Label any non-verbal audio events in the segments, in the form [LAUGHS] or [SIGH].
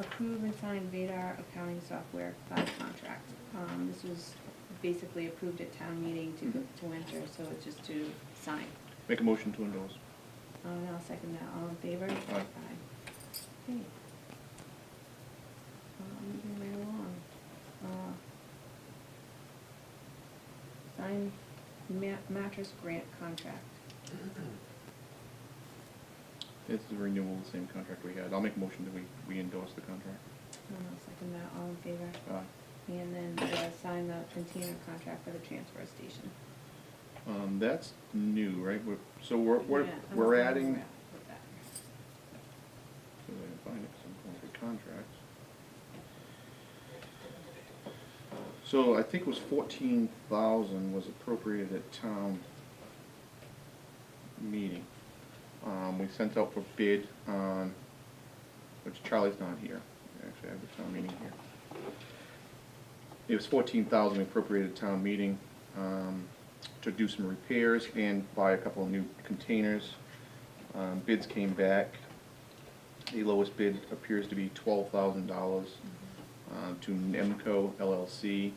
approve and sign Vadar accounting software cloud contract. Um, this was basically approved at town meeting to, go to enter, so it's just to sign. Make a motion to endorse. Uh, and I'll second that, all in favor? Aye. Okay. Uh, moving right along. Uh, Sign ma- mattress grant contract. It's the renewal of the same contract we had. I'll make a motion that we, we endorse the contract. And Uh, I'll second that, all in favor? Aye. And then uh, sign the container contract for the transfer station. Um, that's new, right? We're, so we're, we're, Yeah, I'm we're gonna adding, wrap with that. so I can find it, 'cause I'm going through contracts. So I think it was fourteen thousand was appropriated at town meeting. Um, we sent out for bid on, which Charlie's not here, actually, I have the town meeting here. It was fourteen thousand appropriated at town meeting, um, to do some repairs and buy a couple of new containers. Um, bids came back, the lowest bid appears to be twelve thousand dollars, um, to Nemco LLC.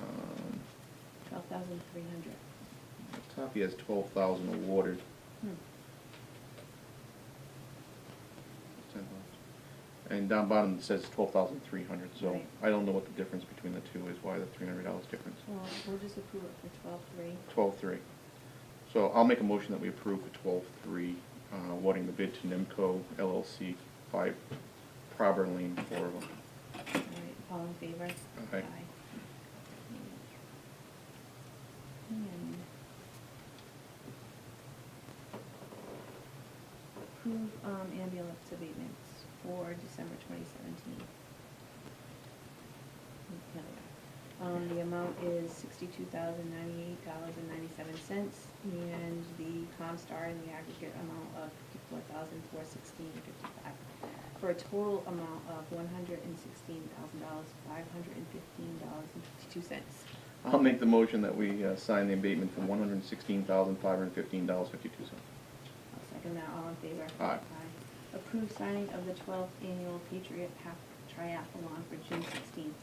Um, Twelve thousand three hundred. Top, he has twelve thousand awarded. Hmm, And down bottom it says twelve thousand three hundred, so Right. I don't know what the difference between the two is, why the three hundred dollars difference. Well, we'll just approve it for twelve-three. Twelve-three. So I'll make a motion that we approve the twelve-three, uh, awarding the bid to Nemco LLC by Prober Lane, Florida. All right, all in favor? Aye. And Approve um, ambulance abatements for December twenty seventeen. Um, the amount is sixty-two thousand ninety-eight dollars and ninety-seven cents, and the Comstar in the aggregate amount of fifty-four thousand four sixteen fifty-five, for a total amount of one hundred and sixteen thousand dollars, five hundred and fifteen dollars and fifty-two cents. I'll make the motion that we uh, sign the abatement for one hundred and sixteen thousand, five hundred and fifteen dollars, fifty-two cents. I'll second that, all in favor? Aye. Approve signing of the twelfth annual Patriot Half Triathlon for June sixteenth.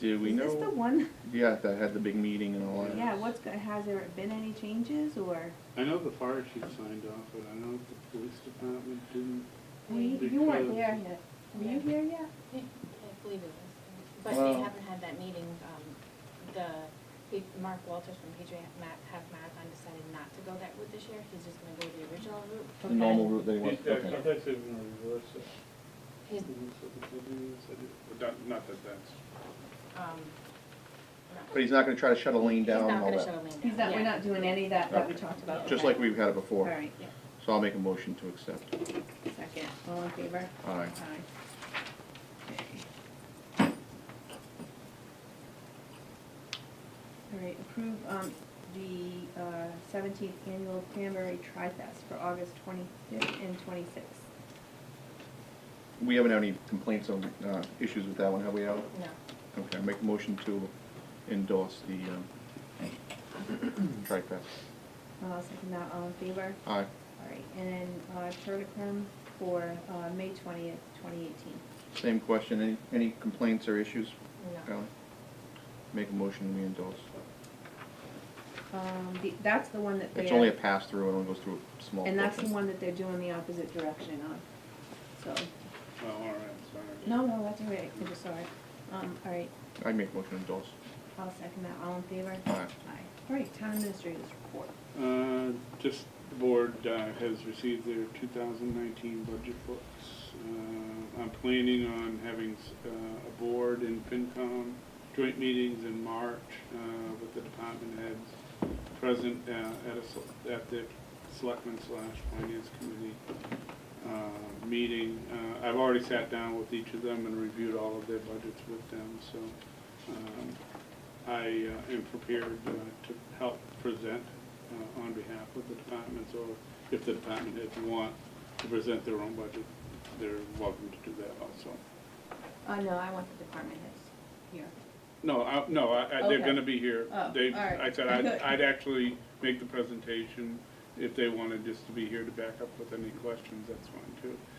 Do we know? Is this the one? Yeah, that had the big meeting and all that. Yeah, what's, go- has there been any changes, or? I know the fire chief signed off, but I know the police department didn't. We, you weren't there yet. Were you here yet? I believe it was, but Well- they haven't had that meeting, um, the, he- Mark Walters from Patriot Ma- Half Marathon decided not to go that route this year, he's just gonna go the original route. The normal route they went, He's, I okay. thought they were gonna reverse it. He's, Not, not that that's, um, But he's not gonna try to shut a lane he's down not and all gonna shut a that. lane down. He's not, we're Yeah. not doing any of that that we Okay. talked about. Just okay. like we've had it All before. right, Yeah. So I'll make a motion to accept. second, all in favor? Aye. Aye. Okay. All right, approve, um, the, uh, seventeenth annual Cranberry Tri-Fest for August twenty-fifth and twenty-sixth. We haven't had any complaints on, uh, issues with that one, have we, Al? No, Okay, I make a motion to endorse the, um, TriFest. Uh, second that, all in favor? Aye. All right, and then, uh, Turticum for, uh, May twentieth, twenty eighteen. Same question, any, any complaints or issues, no. Ally? Make a motion, we endorse. Oh, Um, the, that's the one that they're. It's only a pass-through, it only goes through a small And that's the portion. one that they're doing the opposite direction on, so, oh, all right, sorry. no, no, that's all right, I just saw it. Um, all right, I make motion to endorse. I'll second that, all in favor? Aye. All right, town administrator's report. Uh, just, the board uh, has received their two thousand nineteen budget books. Uh, I'm planning on having s- uh, a board and FinCom joint meetings in March uh, with the department heads present uh, at a, sel- at the selectmen slash finance committee uh, meeting. Uh, I've already sat down with each of them and reviewed all of their budgets with them, so um, I uh, am prepared uh, to help present uh, on behalf of the departments, or if the department heads want to present their own budget, they're welcome to do that also. Uh, no, I want the department heads here. No, I, no, I, I- they're Okay. gonna be here. Oh, They, all right. I said [LAUGHS] I'd, I'd actually make the presentation if they wanted just to be here to back up with any questions, that's fine too.